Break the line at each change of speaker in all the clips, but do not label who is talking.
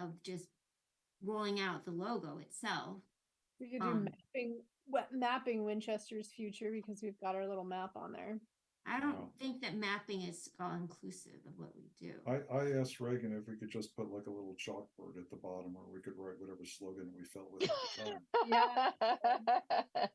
of just rolling out the logo itself.
We could
Um,
do mapping, wet mapping Winchester's future because we've got our little map on there.
I don't
Wow.
think that mapping is all inclusive of what we do.
I, I asked Reagan if we could just put like a little chalkboard at the bottom where we could write whatever slogan we felt with at the time.
Yeah.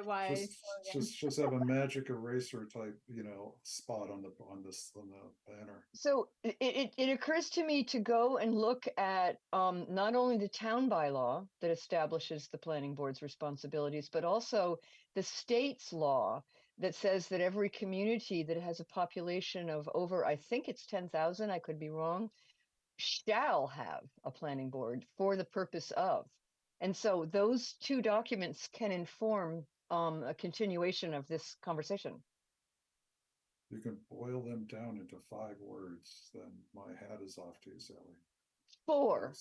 DIY.
Just, just, just have a magic eraser type, you know, spot on the, on this, on the banner.
So it, it, it occurs to me to go and look at um, not only the town bylaw that establishes the planning board's responsibilities, but also the state's law that says that every community that has a population of over, I think it's 10,000, I could be wrong, shall have a planning board for the purpose of. And so those two documents can inform um, a continuation of this conversation.
You can boil them down into five words, then my hat is off to you, Sally.
Four.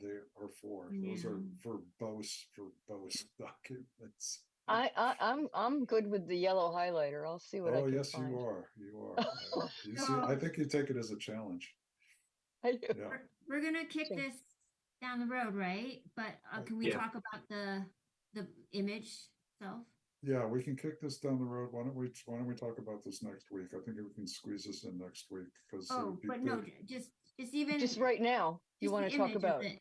They are four. Those are
Yeah.
verbose, verbose documents.
I, I I'm I'm good with the yellow highlighter. I'll see what I
Oh,
can
yes,
find.
you are. You are. Yeah. You see, I think you take it as a challenge.
I do.
Yeah.
We're- We're gonna kick
Sure.
this down the road, right? But uh,
Right.
can we
Yeah.
talk about the, the image itself?
Yeah, we can kick this down the road. Why don't we, why don't we talk about this next week? I think we can squeeze this in next week uh, because.
Oh, but no, ju- just, just even.
Just right now, you
just
want
the
to talk
image of
about
it,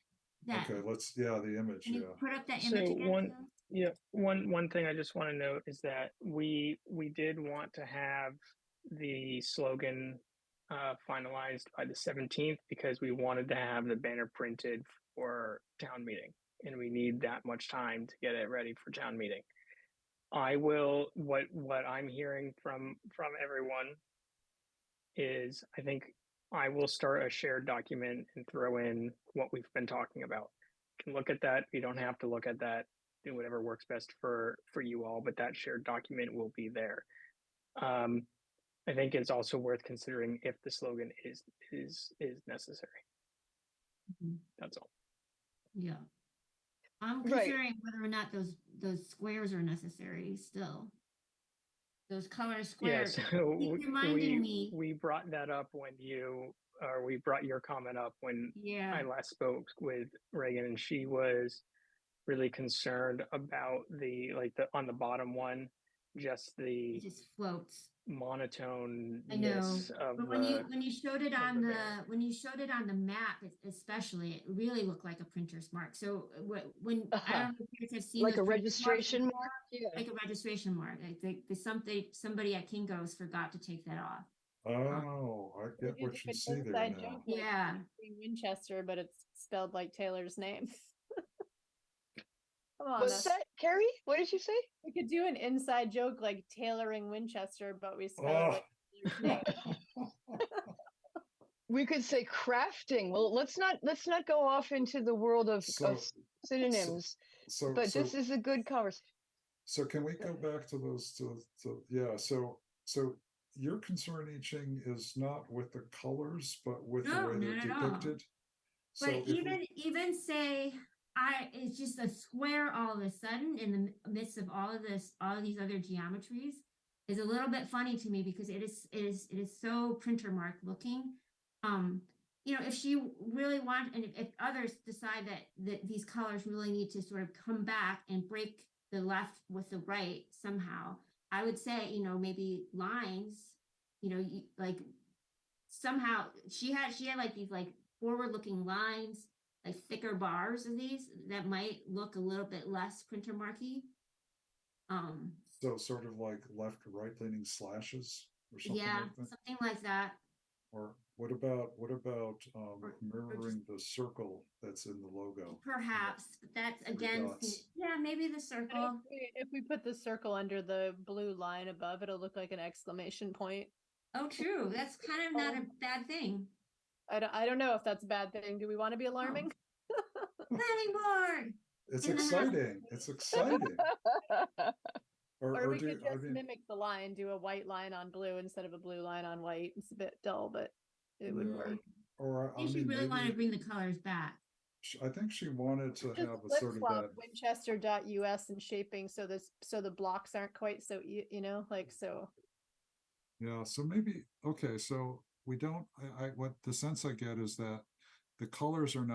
That,
Okay,
can
let's, yeah, the image, yeah.
you put up that
So
image again?
one-
Phil?
Yeah, one one thing I just want to note is that we we did want to have the slogan uh, finalized by the seventeenth because we wanted to have the banner printed for town meeting, and we need that much time to get it ready for town meeting. I will. What what I'm hearing from from everyone is, I think I will start a shared document and throw in what we've been talking about. You can look at that. You don't have to look at that do whatever works best for for you all but that shared document will be there um i think it's also worth considering if the slogan is is is necessary
Mhm.
that's all
Yeah. I'm
Right.
considering whether or not those, those squares are necessary still. Those color
yeah
squares,
so
keep
we,
reminding me.
we, we brought that up when you or we brought your comment up when i
yeah,
last spoke with reagan and she was really concerned about the like the on the bottom one just
it
the
just floats.
monotone
I know,
of
But when you,
the,
when you showed it
of
on
the
the,
banner.
when you showed it on the map es- especially, it really looked like a printer's mark. So uh, wh- when, I
Uh-huh.
don't know if you guys have seen.
like
those
a
printer's marks
registration
before,
mark. Yeah.
Like a registration mark. I think there's something, somebody at Kinko's forgot to take that off.
Oh, I
We
get
could do
what you
an
see there
inside
now.
joke like
Yeah.
Winchester, but it's spelled like Taylor's name. Come on,
What's
us.
that, Carrie? What did you say?
we could do an inside joke like tailoring Winchester, but we spell it
Ah,
like Taylor's name.
We could say crafting. Well, let's not let's not go off into the world of,
So,
of synonyms.
so,
but
so,
this is a good conversation.
so can we go back to those, to, to, yeah, so, so your concern, I Ching, is not with the colors, but with the
No,
way they're
not at all.
depicted? So
But
if we-
even, even say, I, it's just a square all of a sudden in the mi- midst of all of this, all of these other geometries. Is a little bit funny to me because it is, it is, it is so printer mark looking. Um, you know, if she really want, and if- if others decide that, that these colors really need to sort of come back and break the left with the right somehow. I would say, you know, maybe lines, you know, you, like somehow she had she had like these like forward looking lines like thicker bars of these that might look a little bit less printer marky um
So sort of like left, right leaning slashes or something
yeah
like that?
something like that
Or what about, what about um
or
mirroring the circle that's in the logo?
perhaps but that's
Three
again
dots.
yeah maybe the
I
circle
think we- If we put the circle under the blue line above, it'll look like an exclamation point.
oh true that's kind of not a bad thing
I don't, I don't know if that's a bad thing. Do we want to
Hmm.
be alarming?
planning board
It's
And then have-
exciting, it's exciting. Or,
Or
or
we
do,
could
I
just
mean,
mimic the line, do a white line on blue instead of a blue line on white. It's a bit dull, but it would
Yeah.
work.
or
i
I
think she
mean,
really want to
maybe,
bring the colors back
sh- I think she wanted to
Just
have a
flip
sort of
flop
that,
Winchester.us and shaping so this, so the blocks aren't quite so, e- you know, like, so.
yeah, so maybe, okay, so we don't, I, I, what the sense I get is that the colors are not.